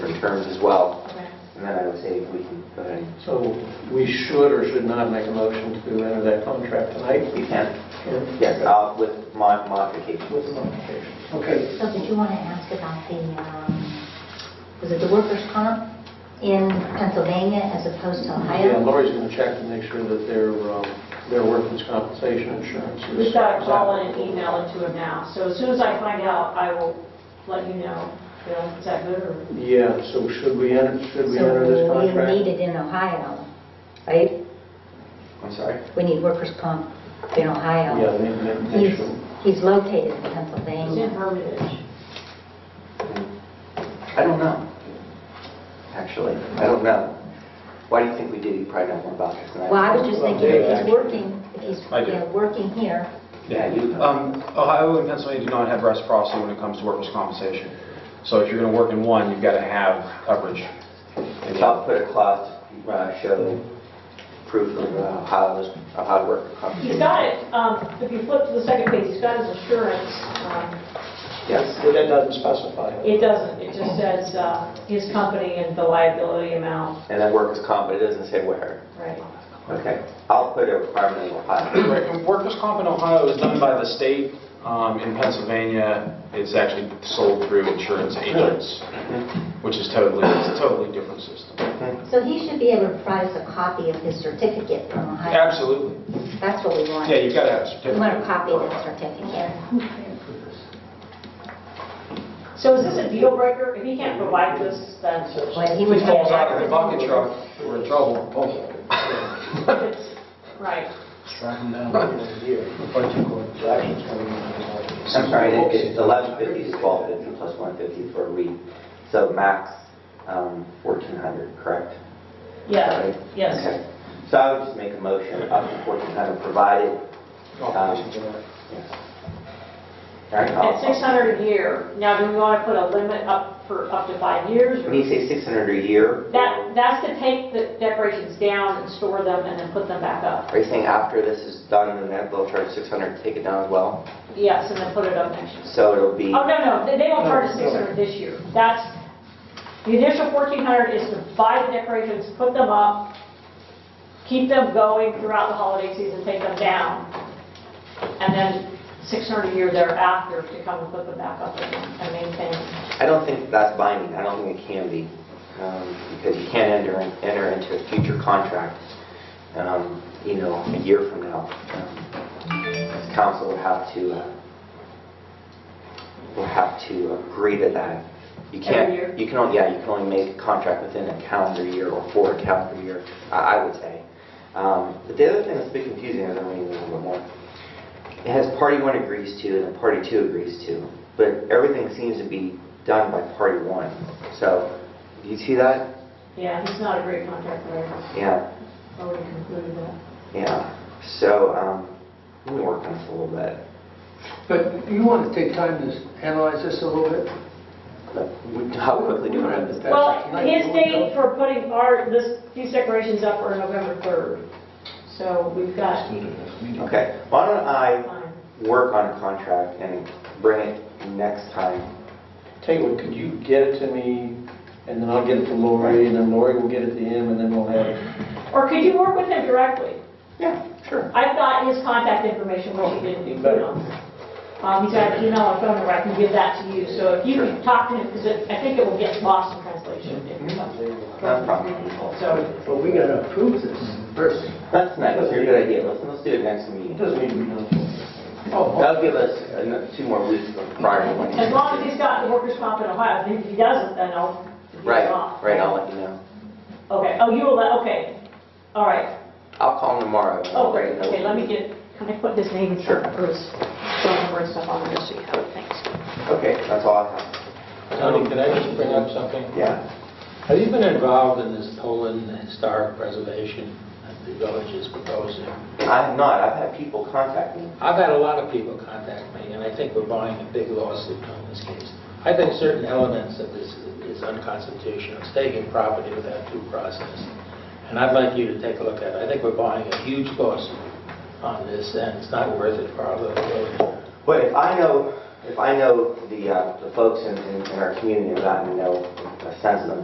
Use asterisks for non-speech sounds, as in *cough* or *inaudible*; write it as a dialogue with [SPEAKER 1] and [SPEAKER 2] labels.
[SPEAKER 1] firms as well.
[SPEAKER 2] Okay.
[SPEAKER 1] And then I would say we can go ahead and,
[SPEAKER 3] So we should or should not make a motion to enter that contract tonight?
[SPEAKER 1] you can,
[SPEAKER 3] Ken?
[SPEAKER 1] yes, uh, with my modification.
[SPEAKER 3] With modification. Okay.
[SPEAKER 2] So did you want to ask about the, um, was it the workers' comp in Pennsylvania as opposed to
[SPEAKER 3] Yeah,
[SPEAKER 2] Ohio?
[SPEAKER 3] Lori's going to check to make sure that their, um, their workers' compensation insurance is...
[SPEAKER 4] We've got to call in and email it to him now, so as soon as I find out, I will let you know. Bill, is that good, or?
[SPEAKER 3] Yeah, so should we enter, should we enter this
[SPEAKER 2] So we need
[SPEAKER 3] contract?
[SPEAKER 2] it in Ohio, right?
[SPEAKER 1] I'm sorry?
[SPEAKER 2] We need workers' comp in Ohio.
[SPEAKER 3] Yeah, we need to make- make
[SPEAKER 2] He's,
[SPEAKER 3] sure.
[SPEAKER 2] he's located
[SPEAKER 4] It's
[SPEAKER 2] in
[SPEAKER 4] in
[SPEAKER 2] Pennsylvania.
[SPEAKER 4] Hermitage.
[SPEAKER 1] I don't know, actually. I don't know. Why do you think we did? You probably know more about this than I do.
[SPEAKER 2] Well, I was just
[SPEAKER 3] Well,
[SPEAKER 2] thinking, if
[SPEAKER 3] Dave,
[SPEAKER 2] he's
[SPEAKER 3] actually.
[SPEAKER 2] working, if he's,
[SPEAKER 5] I do.
[SPEAKER 2] yeah, working here,
[SPEAKER 1] Yeah, you,
[SPEAKER 5] Um, Ohio and Pennsylvania do not have reciprocity when it comes to workers' compensation. So if you're going to work in one, you've got to have coverage. in the
[SPEAKER 1] I'll
[SPEAKER 5] other.
[SPEAKER 1] put a clause, uh, show proof of uh, how it was, of how it worked.
[SPEAKER 4] He's got it, um, if you flip to the second page, he's got his assurance. um,
[SPEAKER 1] Yes.
[SPEAKER 3] But That doesn't specify.
[SPEAKER 4] It doesn't, it just says uh, his company and the liability amount,
[SPEAKER 1] And then workers' comp, but it doesn't say where.
[SPEAKER 4] right?
[SPEAKER 1] Okay. I'll put a requirement in Ohio.
[SPEAKER 5] Right, and Workers' comp in Ohio is done by the state. Um, In Pennsylvania, it's actually sold through insurance agents, which is totally, it's a totally different system.
[SPEAKER 2] so he should be able to provide us a copy of his certificate from Ohio.
[SPEAKER 5] Absolutely.
[SPEAKER 2] That's what we want.
[SPEAKER 5] Yeah, you've got to have a
[SPEAKER 2] We
[SPEAKER 5] certificate.
[SPEAKER 2] want a copy of the certificate.
[SPEAKER 4] So is this a deal breaker? If he can't provide this, then
[SPEAKER 2] Well, he
[SPEAKER 5] If
[SPEAKER 2] would
[SPEAKER 5] it falls out of
[SPEAKER 2] have-
[SPEAKER 5] the bucket truck, we're in trouble.
[SPEAKER 4] it's, right.
[SPEAKER 3] Tracking down in a year. Budget court, the action's coming in.
[SPEAKER 1] I'm sorry, it- it's 1150 is 1250 plus 150 for a read. So max um, 1400, correct?
[SPEAKER 4] Yeah,
[SPEAKER 1] Right?
[SPEAKER 4] yes.
[SPEAKER 1] Okay. So I would just make a motion up to 1400 provided. All right. I'll-
[SPEAKER 4] At 600 a year. Now, do we want to put a limit up for up to five years?
[SPEAKER 1] When you
[SPEAKER 4] or-
[SPEAKER 1] say 600 a year,
[SPEAKER 4] That, that's to take the decorations down and store them and then put them back up.
[SPEAKER 1] are you saying after this is done, then they'll charge 600 to take it down as well?
[SPEAKER 4] Yes, and then put it up next year.
[SPEAKER 1] So it'll be,
[SPEAKER 4] Oh, no, no, they they won't charge us
[SPEAKER 3] No, no.
[SPEAKER 4] 600 this year. That's, the initial 1,400 is to buy the decorations, put them up, keep them going throughout the holiday season, take them down, and then 600 a year thereafter to come and put them back up again and maintain.
[SPEAKER 1] I don't think that's binding, I don't think it can be, um, because you can't enter, enter into a future contract, um, you know, a year from now. Um, Council would have to, uh, will have to agree to that. You
[SPEAKER 4] Every year?
[SPEAKER 1] can't, you can only, yeah, you can only make a contract within a calendar year or for a calendar year, I I would say. Um, But the other thing that's a bit confusing, I don't know, maybe a little bit more, it has party one agrees to and then party two agrees to, but everything seems to be done by party one. So, do you see that?
[SPEAKER 4] Yeah, he's not a great contract lawyer.
[SPEAKER 1] Yeah,
[SPEAKER 4] Already concluded that.
[SPEAKER 1] yeah. So, um, let me work on this a little bit.
[SPEAKER 6] But you want to take time to analyze this a little bit?
[SPEAKER 1] But *laughs* How quickly do I?
[SPEAKER 4] Well, his date for putting our, this, these decorations up are November 3rd. So we've got
[SPEAKER 1] Okay, why don't I
[SPEAKER 4] time.
[SPEAKER 1] work on a contract and bring it next time.
[SPEAKER 3] Tell you what, could you get it to me, and then I'll get it to Lori, and then Lori will get it to him, and then we'll have...
[SPEAKER 4] Or could you work with him directly?
[SPEAKER 3] Yeah, sure.
[SPEAKER 4] I've got his contact information, which he didn't do.
[SPEAKER 3] Better.
[SPEAKER 4] Um, he's got an email and phone number, I can give that to you, so if you can talk to him, because I think it will get lost in translation. if it comes
[SPEAKER 1] No Mm-hmm. problem.
[SPEAKER 4] from- So,
[SPEAKER 6] But we got to approve this first.
[SPEAKER 1] That's nice, that's a good idea, let's, let's do it next meeting.
[SPEAKER 3] It doesn't need to be done.
[SPEAKER 1] That'll give us ano- two more weeks prior to when.
[SPEAKER 4] as long as he's got the workers' comp in Ohio, if he doesn't, then I'll. he's
[SPEAKER 1] Right,
[SPEAKER 4] off.
[SPEAKER 1] right, I'll let you know.
[SPEAKER 4] Okay, oh, you will, let- okay, all right.
[SPEAKER 1] I'll call him tomorrow.
[SPEAKER 4] Oh,
[SPEAKER 1] Right,
[SPEAKER 4] great,
[SPEAKER 1] no-
[SPEAKER 4] okay, let me get, can I put his name and
[SPEAKER 1] Sure.
[SPEAKER 4] stuff, or his phone number and stuff on there, so you have it, thanks.
[SPEAKER 1] Okay, that's all I have.
[SPEAKER 7] Tony, can I just bring up something?
[SPEAKER 1] Yeah.
[SPEAKER 7] Have you been involved in this Poland historic preservation that the village is proposing?
[SPEAKER 1] I have not, I've had people contact me.
[SPEAKER 7] I've had a lot of people contact me, and I think we're buying a big lawsuit on this case. I think certain elements of this is unconstitutional, It's taking property without due process. And I'd like you to take a look at it. I think we're buying a huge lawsuit on this, and it's not worth it for our little village.
[SPEAKER 1] But if I know, if I know the, uh, the folks in, in in our community, I've gotten to know a sense of them